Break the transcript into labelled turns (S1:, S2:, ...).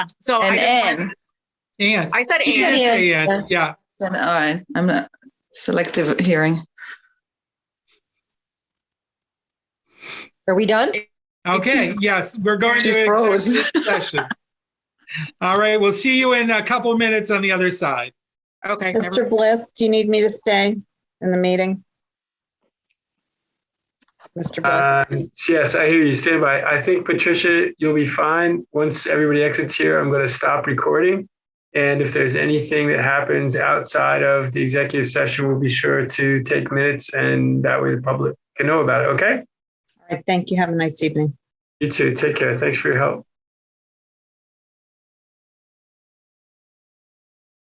S1: So I
S2: And
S1: just
S2: N,
S1: wanted- I said
S2: You said
S1: and.
S2: yes.
S3: Yeah, yeah, yeah.
S2: then I, I'm not selective hearing.
S4: Are we done?
S3: Okay, yes, we're going
S2: She
S3: to
S2: froze.
S3: executive session. All right, we'll see you in a couple minutes on the other side.
S1: Okay. never-
S5: Mr. Bliss, do you need me to stay in the meeting? Mr. Bliss,
S6: Um, Yes, I hear you, Stay by. I think Patricia, you'll be fine. Once everybody exits here, I'm going to stop recording. And if there's anything that happens outside of the executive session, we'll be sure to take minutes and that way the public can know about it, okay?
S5: all right, thank you. Have a nice evening.
S6: You too. Take care. Thanks for your help.